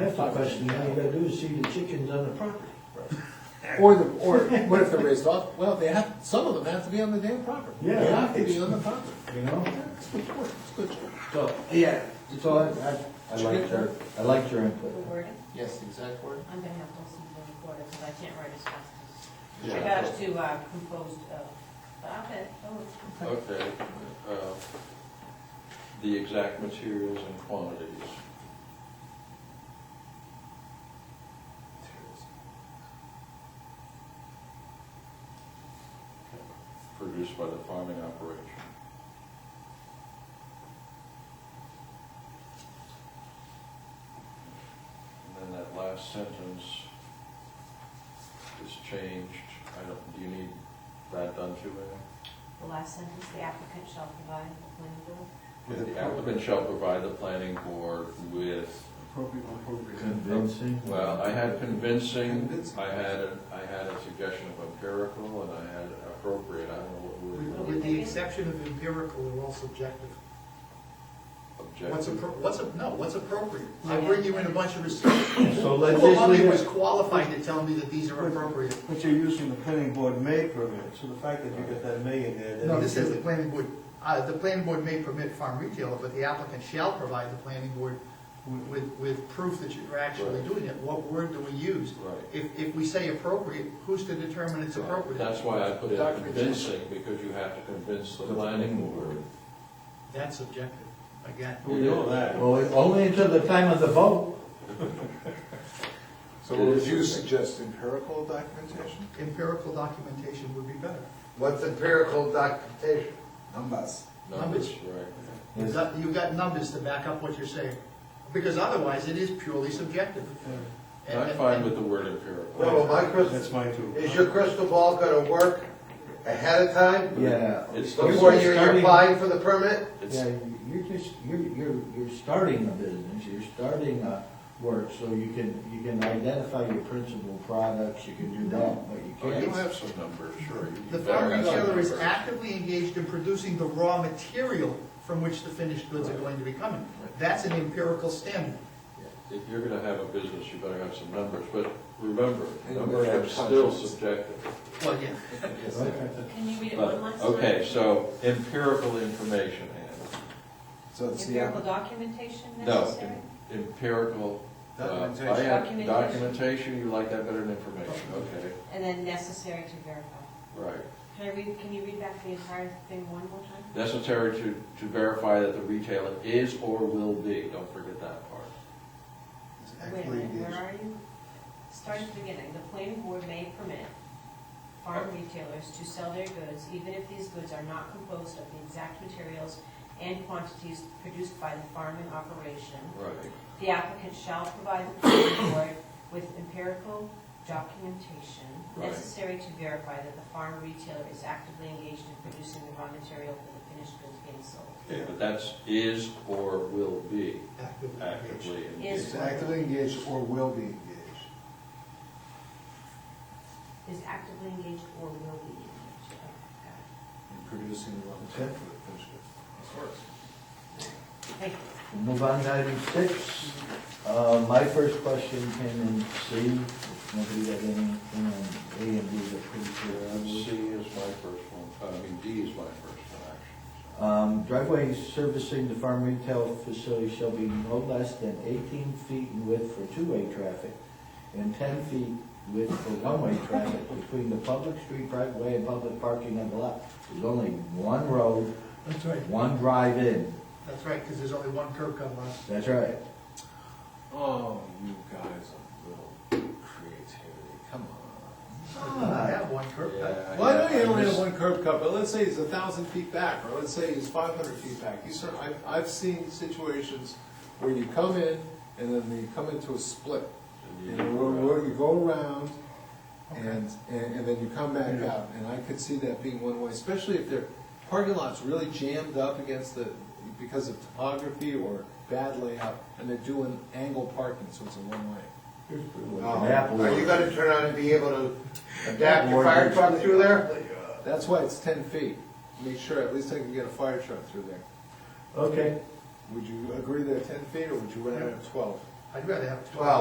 That's the question, all you gotta do is see the chickens on the property. Or the, or what if they're raised off, well, they have, some of them have to be on the damn property. Yeah. They have to be on the property. You know? That's good point, that's good. So, yeah, so I, I, I liked your, I liked your The input. wording, Yes, the exact word. I'm gonna have to listen to the recorder, because I can't write as fast as. Yeah. I got it to, uh, composed, uh, stop it, oh, it's. Okay, uh, the exact materials and quantities. Produced by the farming operation. And then that last sentence is changed, I don't, do you need that done too, Ann? The last sentence, the applicant shall provide the planning board. Yeah, The applicant shall provide the planning board with, Appropriate, appropriate. Convincing. well, I had convincing, I had, a- I had a suggestion of empirical, and I had appropriate, I don't know what With word, the exception of empirical, they're all subjective. What's objective. appro, what's, a- no, what's appropriate? I bring you in a bunch of research. So let's Who just among leave you was it. qualified to tell me that these are appropriate? But you're using the planning board may permit, so the fact that you got that may in there. that- No, this says the planning board, uh, the planning board may permit farm retail, but the applicant shall provide the planning board with, with proof that you're actually Right. doing it. What word do we use? Right. If, if we say appropriate, who's to determine it's appropriate? That's why I put in Doctor- convincing, because you have to convince the planning board. That's subjective, again. We know that. Well, it- only until the time of the vote. So would you suggest empirical documentation? Empirical documentation would be better. What's empirical documentation? Numbers. Numbers. Numbers, right. You've got- you've got numbers to back up what you're saying, because otherwise it is purely subjective. And- I'm and- fine with the word empirical. No, my That's crystal, mine too. is your crystal ball gonna work ahead of time? Yeah. It's the Before You're you're starting- applying for the permit? It's- Yeah, you're just, you're, you're, you're starting a business, you're starting a work, so you can, you can identify your principal products, you can do that, but you Oh, can't. you have some numbers, sure. you The better farm have some retailer is numbers. actively engaged in producing the raw material from which the finished goods are going to be coming. That's an empirical standard. If you're gonna have a business, you better have some numbers, but remember, And you numbers better are have still conscience. subjective. Well, yeah, Can you read it But, one last time? Uh, okay, so empirical information, Ann. So it's the, Empirical documentation No, necessary? em- empirical. uh, Documentation. I had- Documentation. Documentation, you like that better than information, okay, And then necessary to verify. right. Can I read, can you read back the entire thing one more time? Necessary to, to verify that the retailer is or will be, don't forget that part. it's Wait a actually minute, the- where are you? Start at the beginning. The planning board may permit farm retailers to sell their goods even if these goods are not composed of the exact materials and quantities produced by the farming operation. Right. The applicant shall provide the planning board with empirical documentation Right. necessary to verify that the farm retailer is actively engaged in producing the raw material for the finished goods being sold. Okay, But that's is or will be actively engaged. actively engaged. Is, It's actively engaged or will be engaged. is actively engaged or will be engaged. Oh, got it. in Producing the raw material for the finished goods. Of course. Thank you. Move on to item six. Uh, my first question came in C, if nobody got anything on A and B that pretty clear. I was- C is my first one, I mean, D is my first one, actually. Um, driveway servicing the farm retail facility shall be no less than eighteen feet in width for two-way traffic and ten feet width for one-way traffic between the public street, private way, and public parking on the lot. There's only one road, That's right, one drive-in. that's right, because there's only one curb cut left. That's right. Oh, you guys are little creativity, come on. I have one curb cut. Yeah, I- Well, I know you only I have just- one curb cut, but let's say he's a thousand feet back, or let's say he's five hundred feet back. You sort, I've, I've seen situations where you come in, and then you come into a split. You know, where- where you go around, and, and and then you come back out, and I could see that being one way, especially if their parking lot's really jammed up against the, because of topography or bad layout, and they're doing angle parking, so it's a one-way. An apple. Are you gonna turn on and be able to adapt your fire truck through there? That's why it's ten feet, make sure, at least I can get a fire truck through there. Okay. Would you agree they're ten feet, or would you rather have twelve? I'd rather have twelve. Well,